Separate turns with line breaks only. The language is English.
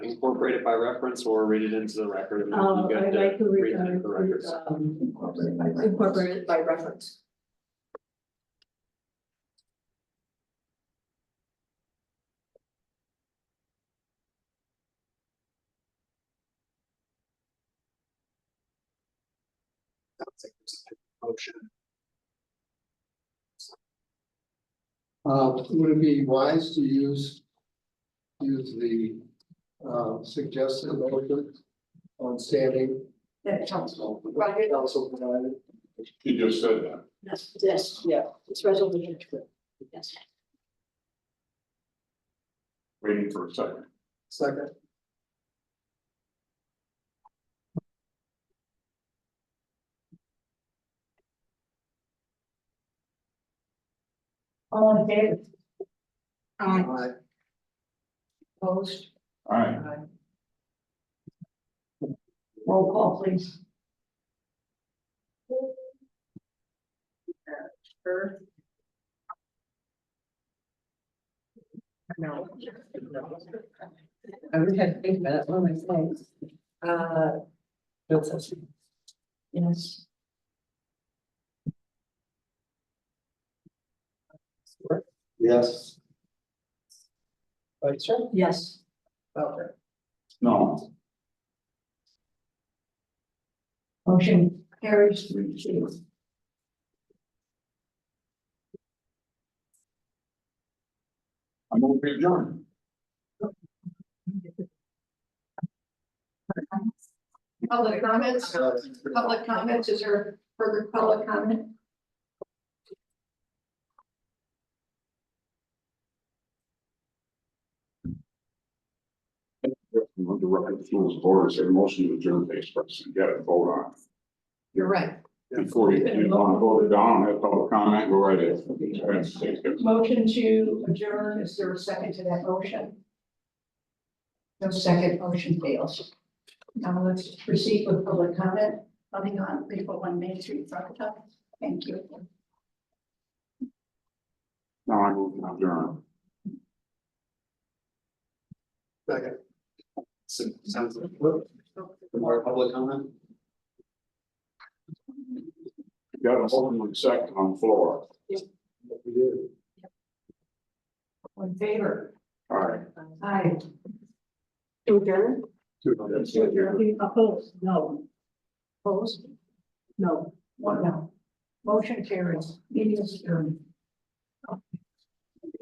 incorporate it by reference or read it into the record. and
Uh,
you got
I'd
to
like to
read
re-
it
uh,
into the
re-
records.
um,
Incorporate by reference.
incorporate it by reference.
Sounds like there's a Motion.
Uh, would it be wise to use? Use the uh suggested motion on standing
That counts.
council.
Right.
Council provided.
You just said that.
Yes, yes, yeah, it's resolution. Yes.
Waiting for a second.
Second,
All in favor? Aye.
I
Opposed?
All right.
Aye. Roll call, please.
No. I would have to think about it, what am I saying? Uh. Bill Sessions.
Yes.
yes.
Right, sure.
Yes.
Bowker.
No,
Motion carries three two.
I'm over to adjourn.
Public comments, public comments, is there further public comment?
Under record rules of order, say motion to adjourn the express and get a vote on.
You're right.
it. Before you, you want to vote it down, have public comment, go right ahead. That's- that's good.
Motion to adjourn, is there a second to that motion? No second, motion fails. Now let's proceed with public comment, coming on people one Main Street, Sagatuck. Thank you.
Now I move to adjourn.
Second,
So, sounds like, whoop, more public comment?
Got a motion in second on the floor.
we do.
In favor?
All right.
Aye.
That's
So
it.
you're opposed? No. Opposed? No. One no. Motion carries, meeting is adjourned.